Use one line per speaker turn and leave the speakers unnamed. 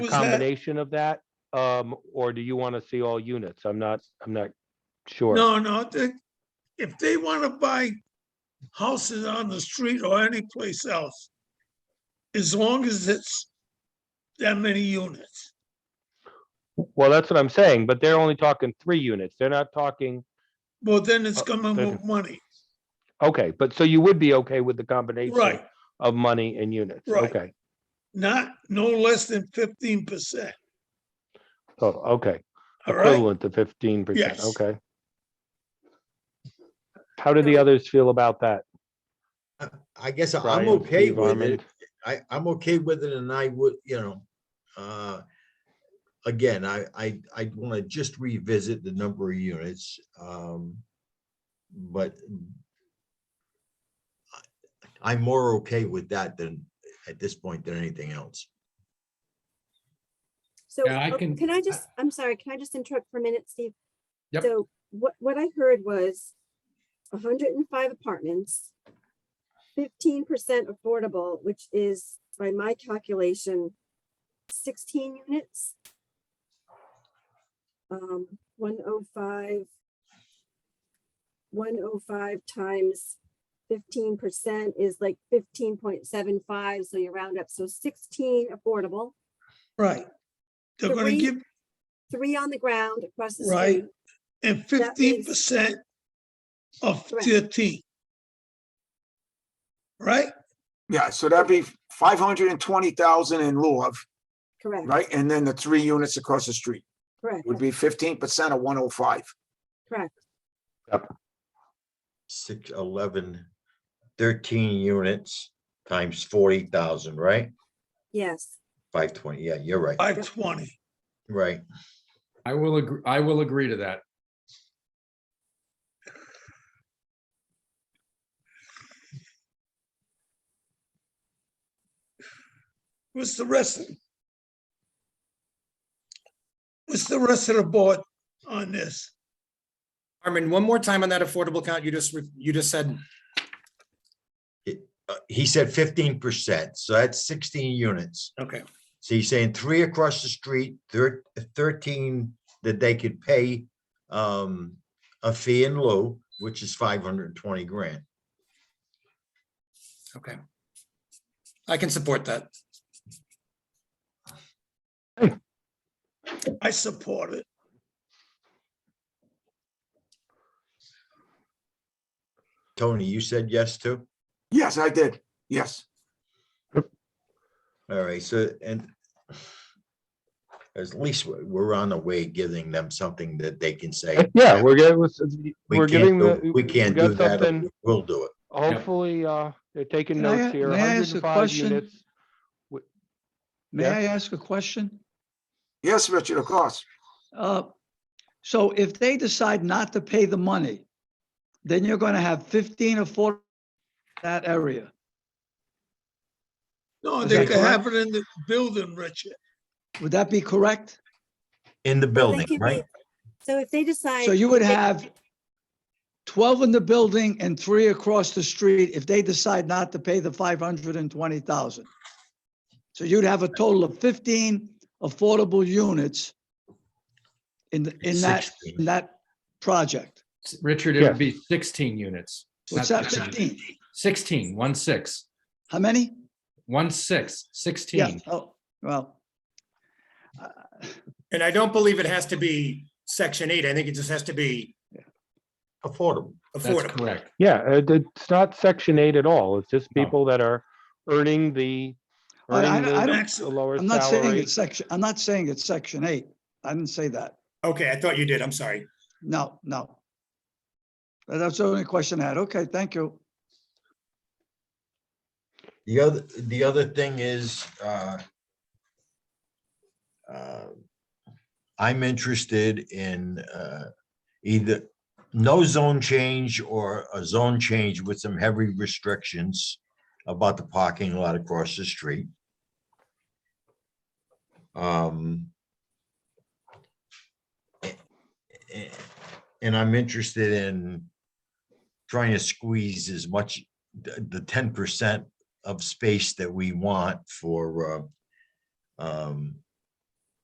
Who's that?
combination of that? Um, or do you want to see all units? I'm not, I'm not sure.
No, no, they- if they want to buy houses on the street or anyplace else, as long as it's that many units.
Well, that's what I'm saying, but they're only talking three units. They're not talking,
Well, then it's
Oh,
coming with money.
okay, but so you would be okay with the combination
Right,
of money and units?
Right.
Okay,
not, no less than fifteen percent,
so, Oh, okay.
all right?
Equivalent to fifteen percent,
Yes.
okay. How do the others feel about that?
I guess I'm
Brian,
okay
Steve,
with
Armand?
it. I, I'm okay with it and I would, you know, uh, again, I, I, I want to just revisit the number of units. um, But I- I'm more okay with that than, at this point, than anything else.
So,
Yeah, I
oh,
can-
can I
I-
just, I'm sorry, can I just interrupt for a minute, Steve?
Yep.
So what, what I heard was hundred and five apartments, fifteen percent affordable, which is by my calculation, sixteen units. Um, one oh five. One oh five times fifteen percent is like fifteen point seven five, so you round up, so sixteen affordable
Right. They're gonna
Three-
give,
three on the ground across the
Right.
street.
and
that
fifteen
means-
percent of
Correct.
thirteen. Right?
Yeah, so that'd be five hundred and twenty thousand in lieu of,
Correct,
right? And then the three units across the street
correct.
would be fifteen percent of one oh five.
Six, eleven, thirteen units times forty thousand, right?
Yes,
Five twenty, yeah, you're right,
Five twenty.
right.
I will agree, I will agree to that.
What's the rest? of- What's the rest of the board on this?
Armin, one more time on that affordable count you just, re- you just said,
uh, he said fifteen percent, so that's sixteen units.
okay,
So he's saying three across the street, thir- thirteen that they could pay um a fee in lieu, which is five hundred and twenty grand.
okay. I can support that.
I support it.
Tony, you said yes to?
Yes, I did. Yes.
All right, so and at least we- we're on the way giving them something that they can say.
Uh, Yeah, we're getting,
"We
we're
can't
giving
do-
the.
We can't
got
do that,
something-
or we'll do it.
Hopefully, uh, they're taking
Can I
notes
a-
here,
may I ask a
105
question?
units.
May
Yeah.
I ask a question?
Yes, Richard, of course.
Uh, So if they decide not to pay the money, then you're going to have 15 affordable in that area.
No,
Is
they
that
could have it in the building, Richard.
Would that be correct?
In the
Well, they
building,
could be-
right?
So if they decide.
So you would
if they-
have 12 in the building and three across the street if they decide not to pay the 520,000. So you'd have a total of 15 affordable units in, the- in that,
16.
in that project.
S- Richard, it would be sixteen units.
What's
not
that,
15.
15?
Sixteen, one six,
How many?
one six,
Yeah,
sixteen.
oh, well.
And I don't believe it has to be section eight. I think it just has to be
Affordable.
That's
affordable.
correct.
Yeah, uh, it's not section eight at all. It's just
No.
people that are earning the.
I- I-
earning the-
I
don't-
the lower
I'm not saying
salary.
it's section, I'm not saying it's section eight. I didn't say that.
Okay, I thought you did. I'm sorry.
No, no. But That's the only question I had. Okay, thank you.
The other, the other thing is, uh, uh, I'm interested in, uh, either no zone change or a zone change with some heavy restrictions about the parking lot across the street. Um, a- a- and I'm interested in trying to squeeze as much, the, the ten percent of space that we want for uh, um,